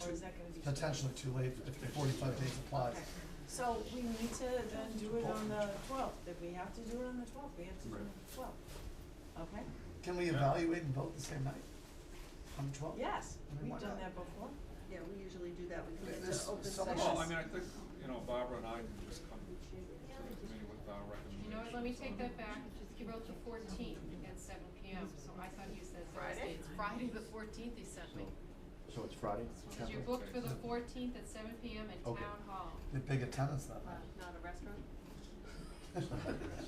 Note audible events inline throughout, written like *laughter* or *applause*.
that gonna be? potentially too late if the forty-five days applies. Okay. So we need to then do it on the twelfth, if we have to do it on the twelfth, we have to do it on the twelfth. Okay, Can we evaluate and vote the same night? On the twelfth? yes, I mean, we've why done not? that before. Yeah, we usually do that, we Yeah, commit there's to open so session. much- Well, I mean, I think, you know, Barbara and I can just come to the committee with our recommendations. You know what, let me take that back, he wrote the fourteenth at seven P M, so I thought you said Friday? Thursday, it's Friday the fourteenth he sent me. So it's Friday? Cause you're booked for the fourteenth at seven P M in Okay. Town Hall. The big attendance that night. Uh, Not a restaurant?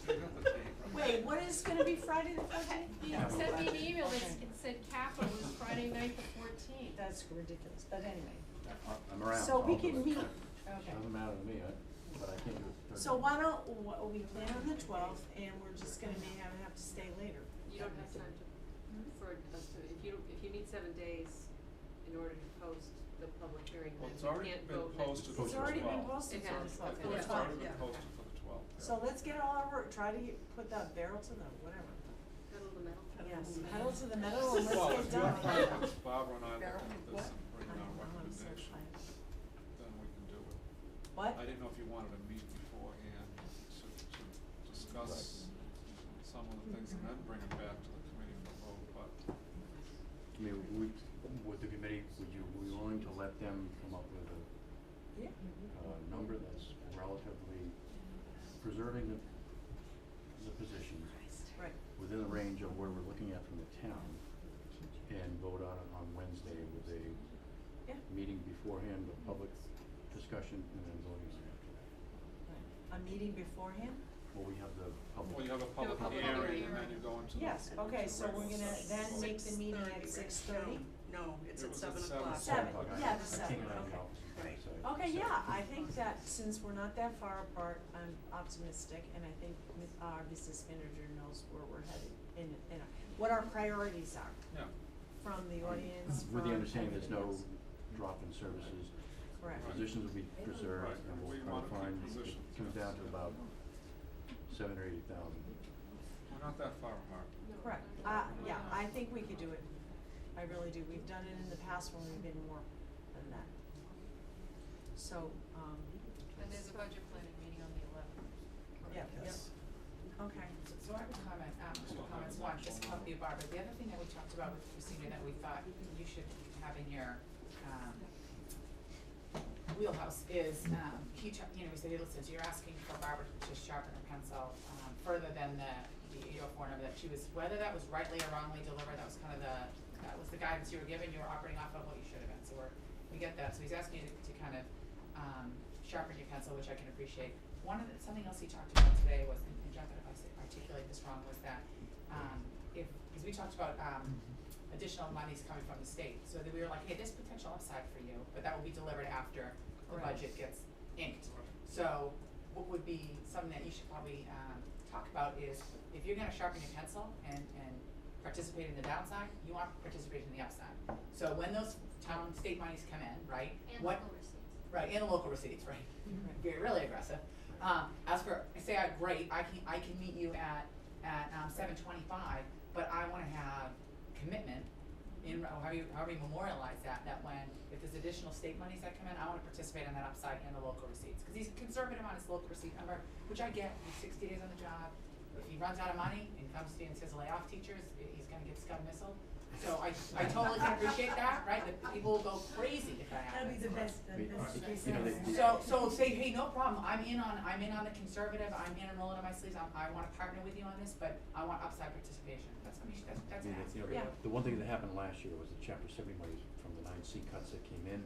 Take up the tape. *laughs* Wait, what is gonna be Friday the fourteenth? He Yeah. sent me an email, that s- Okay. it said capital was Friday night the fourteenth. That's ridiculous, but anyway, I- I'm around. so we I'll do can it. meet, okay. Doesn't matter to me, I, but I can't do it Thursday. So why don't, wh- we plan on the twelfth and we're just gonna may have, have to stay later. You don't have time to, for us to, if you, don't- if you need seven days in order to post the public hearing, Well, then it's we already can't been vote next. posted for the It's twelfth. already been posted It has, for the okay. twelfth. It's Yeah. already been Yeah. posted for the twelfth. So let's get all our work, try to get- put that barrel to the, whatever, Pedal to the metal. yes, pedal to the metal and Well, let's if get you're done. fine with Barbara and I Barrel looking at and this what? and I bringing don't our know, I'm so recommendations, tired. then we can do it. What? I didn't know if you wanted to meet beforehand to, to discuss some of the things and then bring it back to the committee for vote, but I mean, would, would the committee, would you, be willing to let them come up with a, Yeah. a number that's relatively preserving the, the position Right, within the range of where we're looking at from the town and vote on it on Wednesday with a yeah, meeting beforehand, a public discussion and then voting on it after a that. meeting beforehand? Well, we have the public. Well, you have a public public hearing hearing. and then you go into the. Yes, into okay, the so we're regular gonna session. then make the meeting 6:30, at right? six thirty? No, no, it's It at was at seven seven. o'clock. Seven, Sorry, I- yeah, the I seven, came out of the okay. office, Right. so- Okay, so- yeah, I think that since we're not that far apart, I'm optimistic and I think mi- our business manager knows where we're headed in, in, our- what our priorities are Yeah, from the audience, With from the understanding there's no everything drop in services, else. Correct, Right. positions will be preserved, Right, and we we'll try wanna to keep find, it positions, comes yes. down to about seven or eight thousand. we're not that far apart. correct, uh, yeah, I think we could do it, I really do, we've done it in the past when we've been more than that. So, um, And there's a budget planning meeting on the eleventh. yeah, yeah, Yes. okay, So I have a comment, um, two comments, one, just a copy of Barbara, the other thing that we talked about with Christina that we thought you should have in your, um, wheelhouse is, um, he ta- you know, he said, "Hey, listen, so you're asking for Barbara to sharpen her pencil, um, further than the, the eight oh four number that she was, whether that was rightly or wrongly delivered, that was kind of the, that was the guidance you were given, you were operating off of what you should have been, so we're, we get that, so he's asking you to, to kind of, um, sharpen your pencil, which I can appreciate. One of the, something else he talked about today was, and Jeff, if I s- articulate this wrong, was that, um, if, because we talked about, um, additional monies coming from the state, so that we were like, hey, there's potential upside for you, but that will be delivered after the Right. budget gets inked. So what would be something that you should probably um talk about is if you're gonna sharpen your pencil and and participate in the downside, you want participation in the upside. So when those town state monies come in, right, what, right, and the local *laughs* receipts, right, you're really aggressive. Um, as for, say, I, great, I can, I can meet you at, at, um, seven twenty-five, but I wanna have commitment in, or how you, how we memorialize that, that when, if there's additional state monies that come in, I wanna participate in that upside and the local receipts. Cause he's conservative on his local receipt number, which I get, he's sixty days on the job, if he runs out of money and comes to you and says lay off teachers, i- he's gonna get scum missile. So I, I totally can appreciate that, right, that people will go crazy if that that'd be happens. the best, I the mean, best it- case you know, scenario. they- So, so say, hey, no problem, I'm in on, I'm in on the conservative, I'm in and rolling on my sleeves, I'm, I wanna partner with you on this, but I want upside participation, that's what we should, that's, I that's an mean, ask. you know, Yeah. The one thing that happened last year was the chapter seventy monies from the nine C cuts that came in.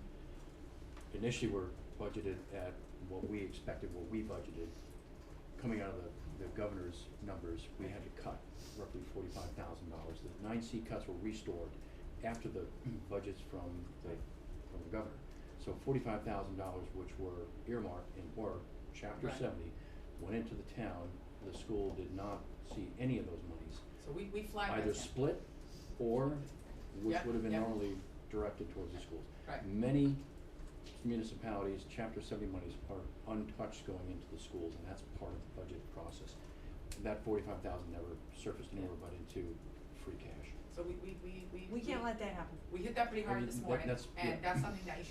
Initially were budgeted at what we expected, what we budgeted. Coming out of the, the governor's numbers, we had to cut roughly forty-five thousand dollars. The nine C cuts were restored after the *clears throat* budgets from the, from the governor. So forty-five thousand dollars, which were earmarked and were chapter Right. seventy, went into the town. The school did not see any of those monies So we, we flag that. either down. split or, which Yep, would have been yep. normally directed towards the schools. Right. Many municipalities, chapter seventy monies are untouched going into the schools, and that's part of the budget process. That forty-five thousand never surfaced anywhere but into free cash. So we, we, we, we. We can't let that happen. We hit that pretty I hard mean, this that- morning, that's- yeah. and that's something that you should